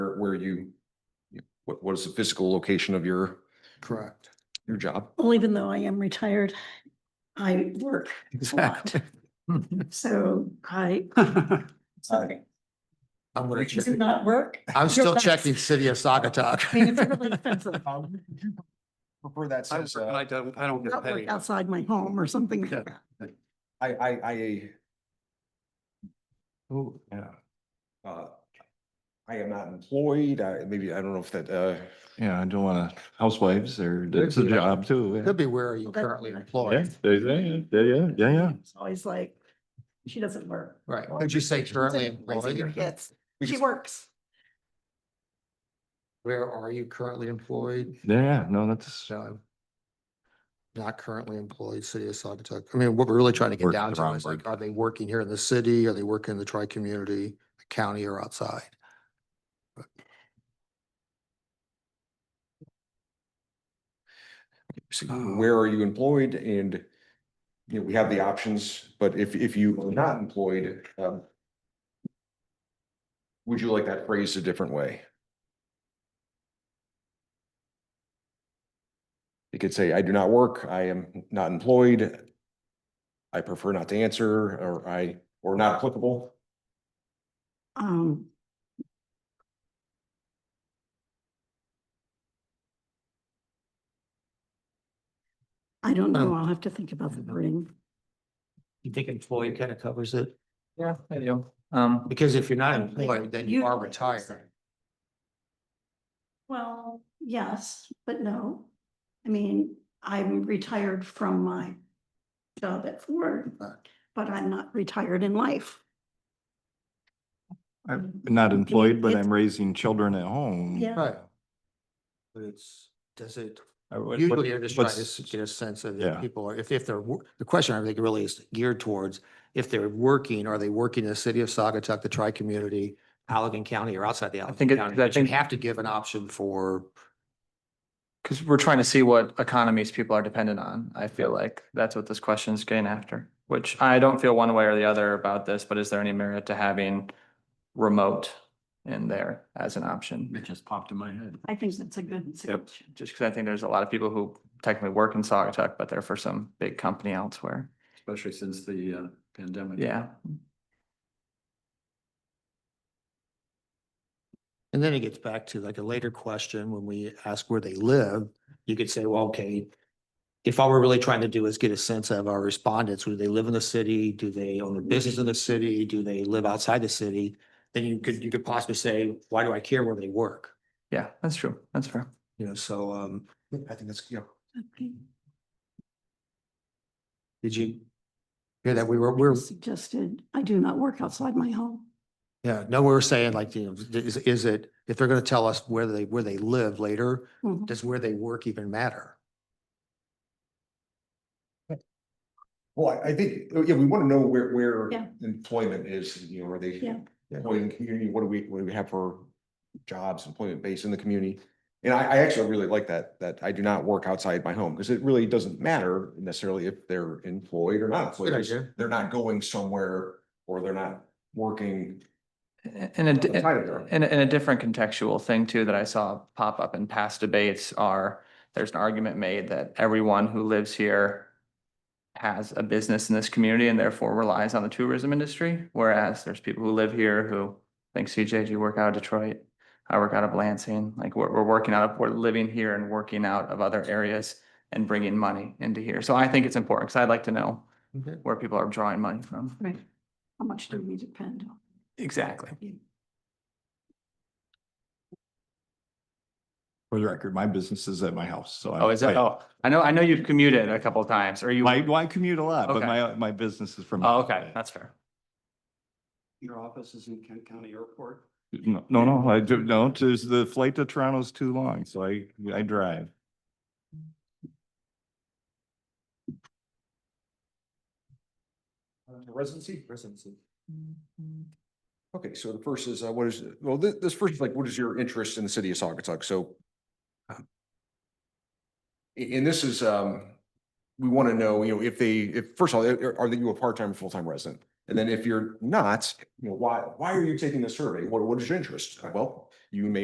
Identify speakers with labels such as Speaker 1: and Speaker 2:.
Speaker 1: where you, you- what, what is the physical location of your,
Speaker 2: Correct.
Speaker 1: your job?
Speaker 3: Well, even though I am retired, I work a lot. So I,
Speaker 2: Uh,
Speaker 3: sorry,
Speaker 2: I'm gonna
Speaker 3: does
Speaker 2: check.
Speaker 3: it not work?
Speaker 2: I'm still
Speaker 3: best.
Speaker 2: checking city of
Speaker 3: I mean, it's
Speaker 2: Sagatuck.
Speaker 3: really offensive.
Speaker 2: Um,
Speaker 4: Prefer that
Speaker 5: I
Speaker 4: says,
Speaker 5: work-
Speaker 4: uh,
Speaker 5: I don't, I don't get
Speaker 3: Not
Speaker 5: paid.
Speaker 3: work outside my home or something.
Speaker 5: Yeah.
Speaker 3: like that.
Speaker 1: I, I, I,
Speaker 5: Oh, yeah.
Speaker 1: uh, I am not employed. I, maybe, I don't know if that, uh,
Speaker 6: Yeah, I don't wanna, housewives or, that's
Speaker 2: Could
Speaker 6: a
Speaker 2: be.
Speaker 6: job too. yeah.
Speaker 2: Could be where are you
Speaker 3: Well, that's
Speaker 2: currently
Speaker 3: fine.
Speaker 6: Yeah,
Speaker 2: employed,
Speaker 6: yeah, yeah, yeah, yeah, yeah.
Speaker 3: It's always like, she doesn't work.
Speaker 2: right? Could you say currently
Speaker 3: Raising your
Speaker 2: employed?
Speaker 3: kids. She works.
Speaker 2: Where are you currently employed?
Speaker 6: Yeah, yeah, no, that's.
Speaker 2: So. Not currently employed, city of Sagatuck. I mean, what we're really trying to get
Speaker 6: Work is
Speaker 2: down
Speaker 6: the
Speaker 2: to
Speaker 6: wrong
Speaker 2: is like,
Speaker 6: word.
Speaker 2: are they working here in the city? Are they working in the tri-community, county or outside?
Speaker 1: where are you employed and you know, we have the options, but if, if you are not employed, um, would you like that phrased a different way? You could say, I do not work, I am not employed. I prefer not to answer, or I, or not applicable.
Speaker 3: Um, I don't know.
Speaker 2: Um,
Speaker 3: I'll have to think about the wording.
Speaker 7: You think employee kind of covers it?
Speaker 5: Yeah, I do. Um,
Speaker 2: Because if you're not employed, then you are retired.
Speaker 3: Well, yes, but no. I mean, I'm retired from my job at Ford, but I'm not retired in life.
Speaker 6: I'm not employed, but
Speaker 3: It's-
Speaker 6: I'm raising children at home.
Speaker 3: Yeah.
Speaker 2: Right. But it's, does it,
Speaker 6: I- what-
Speaker 2: usually
Speaker 6: what-
Speaker 2: you're just trying to
Speaker 6: what's-
Speaker 2: s- get a sense of
Speaker 6: Yeah.
Speaker 2: if people are, if, if they're, wor- the question I think really is geared towards if they're working, are they working in the city of Sagatuck, the tri-community, Allegan County or outside the Allegan
Speaker 5: think it-
Speaker 2: County?
Speaker 5: I
Speaker 2: But You
Speaker 5: think-
Speaker 2: have to give an option for,
Speaker 5: because we're trying to see what economies people are dependent on. I feel like that's what this question's getting after, which I don't feel one way or the other about this, but is there any merit to having remote in there as an option?
Speaker 6: It just popped in my head.
Speaker 3: I think that's a good suggestion.
Speaker 5: Just because I think there's a lot of people who technically work in Saugatuck, but they're for some big company elsewhere.
Speaker 6: Especially since the uh pandemic.
Speaker 5: Yeah.
Speaker 2: and then it gets back to like a later question when we ask where they live, you could say, well, okay, if all we're really trying to do is get a sense of our respondents, do they live in the city? Do they own a business in the city? Do they live outside the city? Then you could, you could possibly say, why do I care where they work?
Speaker 5: Yeah, that's true. That's fair.
Speaker 2: You know, so, um,
Speaker 1: I think that's, you know,
Speaker 3: Okay.
Speaker 2: did you hear that we were, we're,
Speaker 3: Suggested, I do not work outside my home.
Speaker 2: yeah, no, we were saying like, you know, is, is it, if they're gonna tell us where they, where they live later,
Speaker 3: Mhm.
Speaker 2: does where they work even matter?
Speaker 1: well, I- I think, yeah, we want to know where, where
Speaker 3: Yeah.
Speaker 1: employment is, you know, are they
Speaker 3: Yeah.
Speaker 1: employed in the community, what do we, what do we have for jobs, employment base in the community? And I, I actually really like that, that I do not work outside my home, because it really doesn't matter necessarily if they're employed or not employed. because
Speaker 2: idea.
Speaker 1: They're not going somewhere or they're not working.
Speaker 5: A- And a, di-
Speaker 1: Outside of their-
Speaker 5: and, a- and a different contextual thing too that I saw pop up in past debates are, there's an argument made that everyone who lives here has a business in this community and therefore relies on the tourism industry, whereas there's people who live here who think CJ, do you work out of Detroit? I work out of Lansing, like we're, we're working out of, we're living here and working out of other areas and bringing money into here. So I think it's important because I'd like to know
Speaker 2: Okay.
Speaker 5: where people are drawing money from.
Speaker 3: Right. How much do we depend on?
Speaker 5: Exactly.
Speaker 3: you?
Speaker 6: For the record, my business is at my house, so. I-
Speaker 5: Oh, is that,
Speaker 6: I-
Speaker 5: oh, I know, I know you've commuted a couple times, or you.
Speaker 6: My, well, I commute a lot, but
Speaker 5: Okay.
Speaker 6: my, my business is from.
Speaker 5: Oh, okay, that's fair.
Speaker 7: Your office is in Kent County Airport.
Speaker 6: No, no, no, I do, no, there's the flight to Toronto's too long, so I, I drive.
Speaker 1: Uh, Residency? Residency. Okay, so the first is, uh, what is, well, this, this first is like, what is your interest in the city of Saugatuck? So um, a- and this is, um, we want to know, you know, if they, if, first of all, are are you a part-time or full-time resident? And then if you're not, you know, why, why are you taking the survey? What, what is your interest? Uh, Well, you may